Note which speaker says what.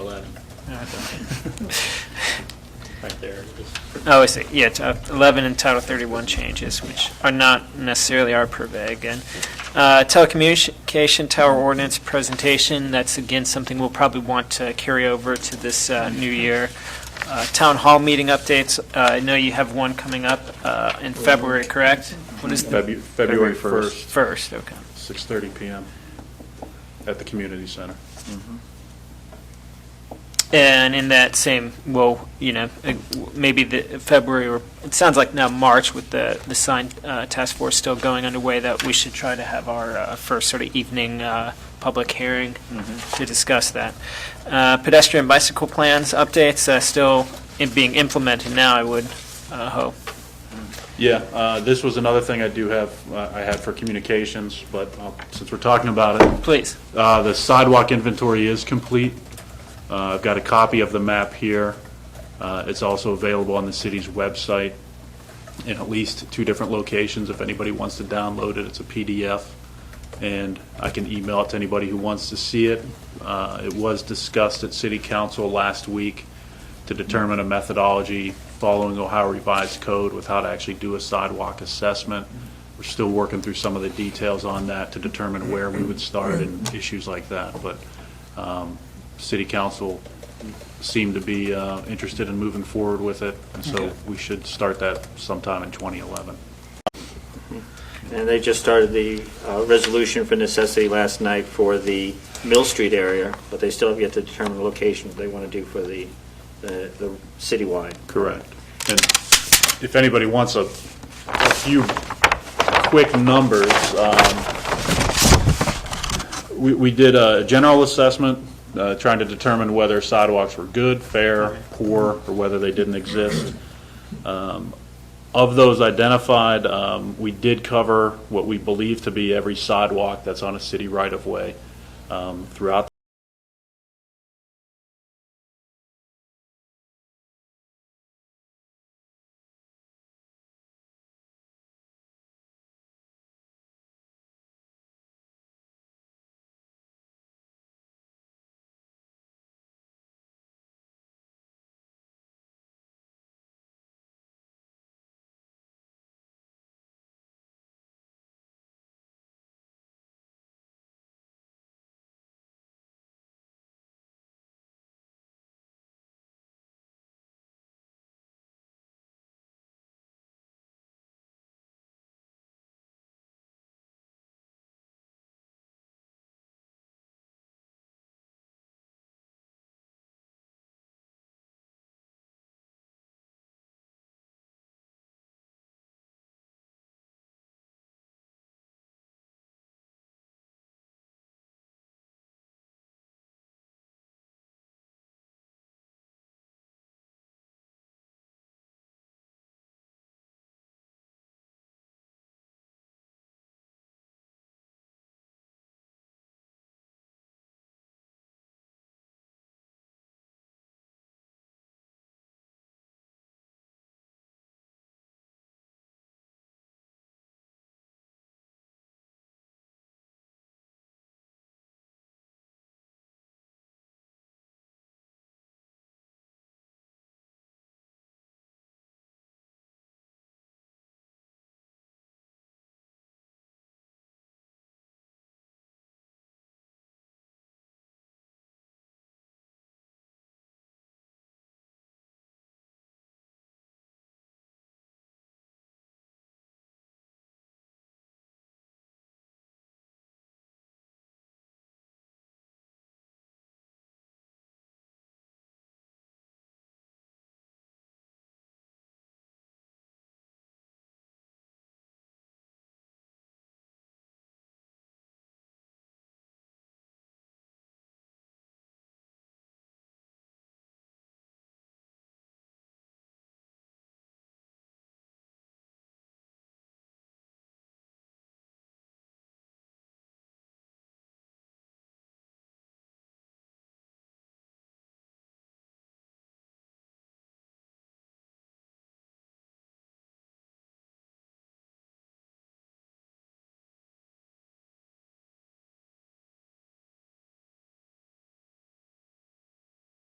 Speaker 1: Right there. just-
Speaker 2: Oh, I see, yeah, it's, uh, 11 and Title 31 changes, which are not necessarily our purvey again. Uh, Telecommunication tower ordinance presentation, that's again something we'll probably want to carry over to this uh, new year. Uh, Town hall meeting updates, uh, I know you have one coming up uh, in February, correct? What is the
Speaker 3: Febu- February
Speaker 4: February
Speaker 3: 1st,
Speaker 2: first, okay.
Speaker 3: 6:30 PM at the community center.
Speaker 2: And in that same, well, you know, uh, maybe the February, or it sounds like now March with the, the sign uh, task force still going underway, that we should try to have our uh, first sort of evening uh, public hearing to discuss that. Uh, Pedestrian bicycle plans updates uh, still in- being implemented now, I would uh, hope.
Speaker 3: Yeah, uh, this was another thing I do have, uh, I had for communications, but uh, since we're talking about it,
Speaker 2: Please.
Speaker 3: Uh, The sidewalk inventory is complete. Uh, I've got a copy of the map here. Uh, It's also available on the city's website in at least two different locations. If anybody wants to download it, it's a PDF, and I can email it to anybody who wants to see it. Uh, It was discussed at city council last week to determine a methodology following Ohio Revised Code with how to actually do a sidewalk assessment. We're still working through some of the details on that to determine where we would start and issues like that. But um, city council seemed to be uh, interested in moving forward with it, and so we should start that sometime in 2011.
Speaker 1: And they just started the uh, resolution for necessity last night for the Mill Street area, but they still have yet to determine the location they want to do for the, the the citywide.
Speaker 3: Correct. And if anybody wants a, a few quick numbers, um, we, we did a general assessment, uh, trying to determine whether sidewalks were good, fair, poor, or whether they didn't exist. Um, Of those identified, um, we did cover what we believe to be every sidewalk that's on a city right-of-way um, throughout